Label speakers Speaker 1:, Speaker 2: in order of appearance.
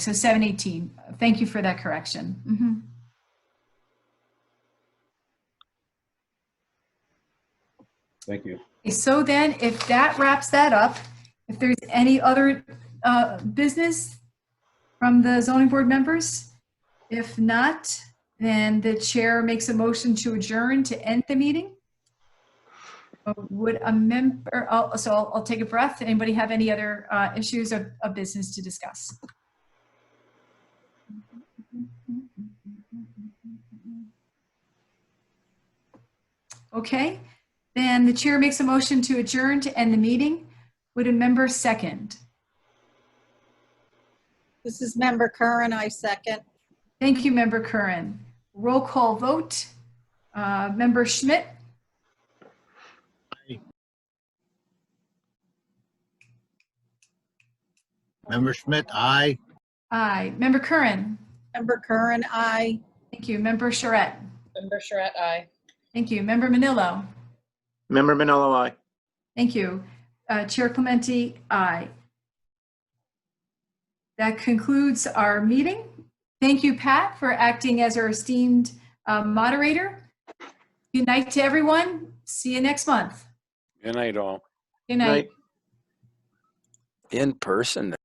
Speaker 1: So 718. Thank you for that correction. Mhm.
Speaker 2: Thank you.
Speaker 1: Okay, So then, if that wraps that up, if there's any other uh, business from the zoning board members? If not, then the chair makes a motion to adjourn to end the meeting. Uh, Would a member, I'll- so I'll- I'll take a breath. Anybody have any other uh, issues of of business to discuss? Okay, then the chair makes a motion to adjourn to end the meeting. Would a member second?
Speaker 3: This is Member Curran, I second.
Speaker 1: Thank you, Member Curran. Roll call vote. Uh, Member Schmidt?
Speaker 4: Member Schmidt, aye.
Speaker 1: Aye. Member Curran?
Speaker 3: Member Curran, I.
Speaker 1: Thank you. Member Charette?
Speaker 5: Member Charette, aye.
Speaker 1: Thank you. Member Manillo?
Speaker 6: Member Manolo, aye.
Speaker 1: Thank you. Uh, Chair Clementi, aye. That concludes our meeting. Thank you, Pat, for acting as our esteemed uh, moderator. Good night to everyone. See you next month.
Speaker 2: Good night, all.
Speaker 1: Good night.
Speaker 6: Night.
Speaker 7: in person